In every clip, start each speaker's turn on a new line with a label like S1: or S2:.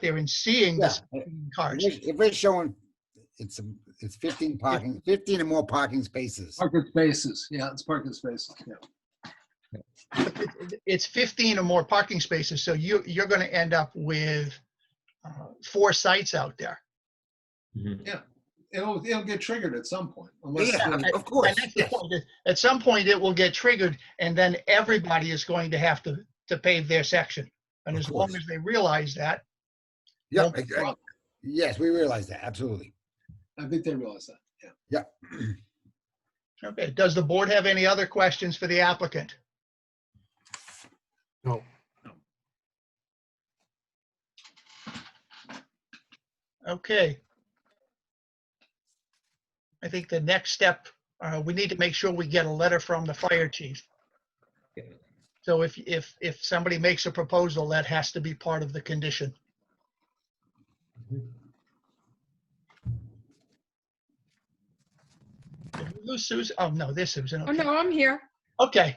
S1: there and seeing
S2: Yeah,
S1: the
S2: if
S1: 16 cars.
S2: we're- if we're showing, it's, a- it's 15 parking, 15 or more parking spaces.
S3: Parking spaces, yeah, it's parking spaces, yeah.
S1: But it- It's 15 or more parking spaces, so you, you're going to end up with uh, four sites out there.
S4: Mhm.
S3: It'll, it'll get triggered at some point. unless
S2: Yeah,
S3: the-
S2: of
S1: And
S2: course.
S1: that's the point, is At some point, it will get triggered, and then everybody is going to have to, to pave their section. And
S2: Of
S1: as long
S2: course.
S1: as they realize that,
S2: Yeah,
S1: won't be
S2: I- I- Yes, we realize that, absolutely.
S3: I think they realize that, yeah.
S1: okay, does the board have any other questions for the applicant?
S5: No.
S1: Okay. I think the next step, uh, we need to make sure we get a letter from the fire chief.
S4: Yeah.
S1: So if, if, if somebody makes a proposal, that has to be part of the condition. Who's Susan? Oh, no, there's Susan.
S6: Oh,
S1: Okay.
S6: no, I'm here.
S1: Okay.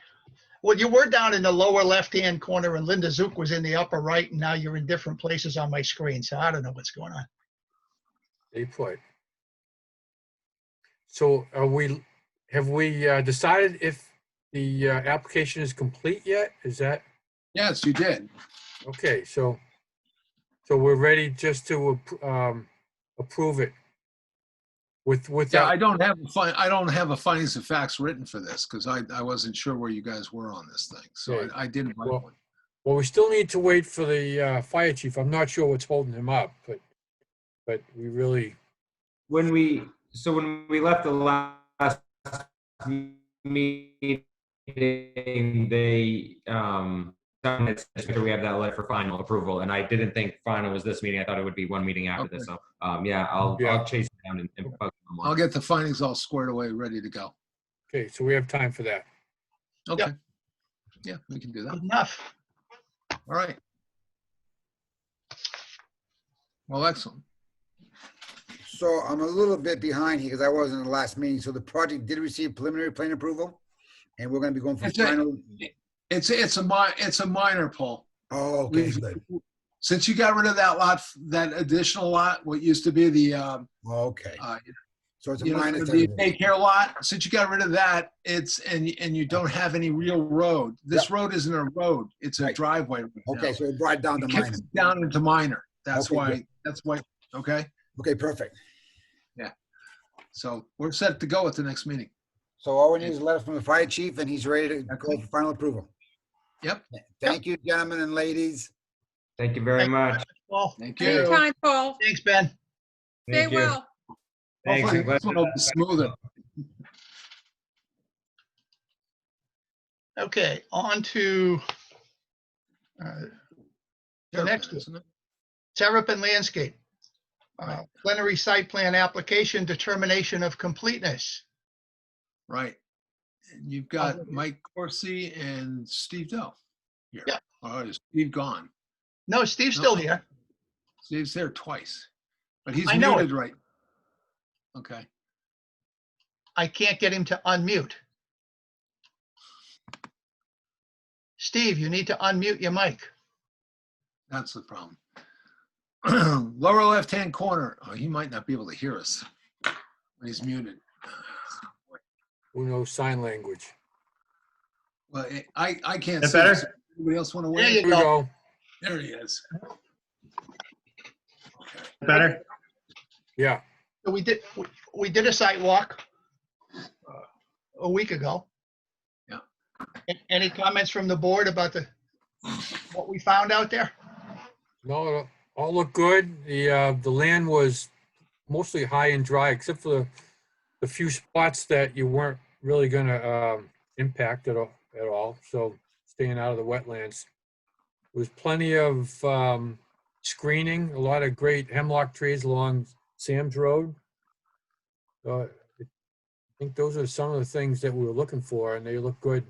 S1: Well, you were down in the lower left-hand corner and Linda Zook was in the upper right, and now you're in different places on my screen, so I don't know what's going on.
S5: They put. So are we, have we uh, decided if the uh, application is complete yet? Is that,
S3: Yes, you did.
S5: okay, so, so we're ready just to appro- um, approve it with, with
S3: Yeah, I
S5: that?
S3: don't have, a fin- I don't have a findings of facts written for this because I, I wasn't sure where you guys were on this thing. So
S5: Yeah.
S3: I- I didn't write
S5: Well-
S3: one.
S5: Well, we still need to wait for the uh, fire chief. I'm not sure what's holding him up, but, but we really,
S4: When we, so when we left the last meeting, they, um, someone had said, we have that letter for final approval, and I didn't think final was this meeting. I thought it would be one meeting after this. So, um, yeah, I'll,
S5: Yeah.
S4: I'll chase it down and- and bug them. on
S3: I'll get the findings all squared away, ready to go.
S5: okay, so we have time for that.
S3: Okay. Yeah, we can do that.
S1: Good Enough.
S3: All right. Well, excellent.
S2: So I'm a little bit behind here because I wasn't in the last meeting. So the project did receive preliminary plan approval and we're going to be going for
S3: That's right.
S2: final.
S3: It's, it's a mi, it's a minor pull.
S2: Oh, okay,
S3: We've-
S2: good.
S3: Since you got rid of that lot, that additional lot, what used to be the, um,
S2: Okay.
S3: uh,
S2: So it's a
S3: you know,
S2: minus.
S3: the daycare lot, since you got rid of that, it's, and, and you don't have any real road. This road isn't a road, it's a
S2: Right.
S3: driveway. right now.
S2: Okay, so it brought down the
S3: It kicks
S2: minus.
S3: it Down into minor. That's
S2: Okay,
S3: why, that's why, okay?
S2: Okay, perfect.
S3: So we're set to go at the next meeting.
S2: So all we need is a letter from the fire chief and he's ready to go for final approval.
S3: Yep.
S2: Thank you, gentlemen and ladies.
S4: Thank you very much.
S1: Well,
S3: Thank you.
S6: Anytime, Paul.
S1: thanks, Ben.
S6: Stay
S4: Thank you.
S6: well.
S4: Thanks.
S3: Hopefully
S4: I'm glad
S3: This one will be smoother.
S1: Okay, on to uh, The next one.
S3: Isn't it?
S1: Terrapin Landscape. Uh,
S3: Right.
S1: Plenary site plan application determination of completeness.
S3: Right. And you've
S1: Okay.
S3: got Mike Corsi and Steve Dell here.
S1: Yeah.
S3: Oh, is Steve gone?
S1: No, Steve's still here.
S3: Steve's there twice, but he's
S1: I know it.
S3: muted right. Okay.
S1: I can't get him to unmute. Steve, you need to unmute your mic.
S3: That's the problem. Lower left-hand corner, oh, he might not be able to hear us when he's muted.
S5: Who knows sign language?
S3: Well, I- I, I can't
S4: That
S3: see.
S4: better?
S3: this. Anybody else want to
S1: There
S3: wait?
S1: you
S5: Here we
S1: go.
S5: go.
S3: There he is. Okay.
S4: Better?
S5: Yeah,
S1: We did, we- we did a site walk uh, a week ago.
S3: Yeah.
S1: A- Any comments from the board about the, what we found out there?
S5: no, it all looked good. The, uh, the land was mostly high and dry, except for the, the few spots that you weren't really gonna, um, impact at all, at all, so staying out of the wetlands. There was plenty of, um, screening, a lot of great hemlock trees along Sam's Road. So I think those are some of the things that we were looking for, and they look good.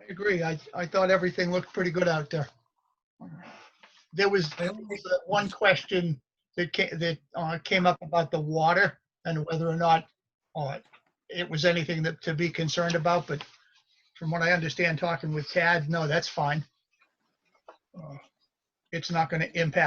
S1: I agree. I, I thought everything looked pretty good out there. There was there was that one question that came, that uh, came up about the water and whether or not uh, it was anything that to be concerned about, but from what I understand, talking with Tad, no, that's fine. Uh, it's not going to impact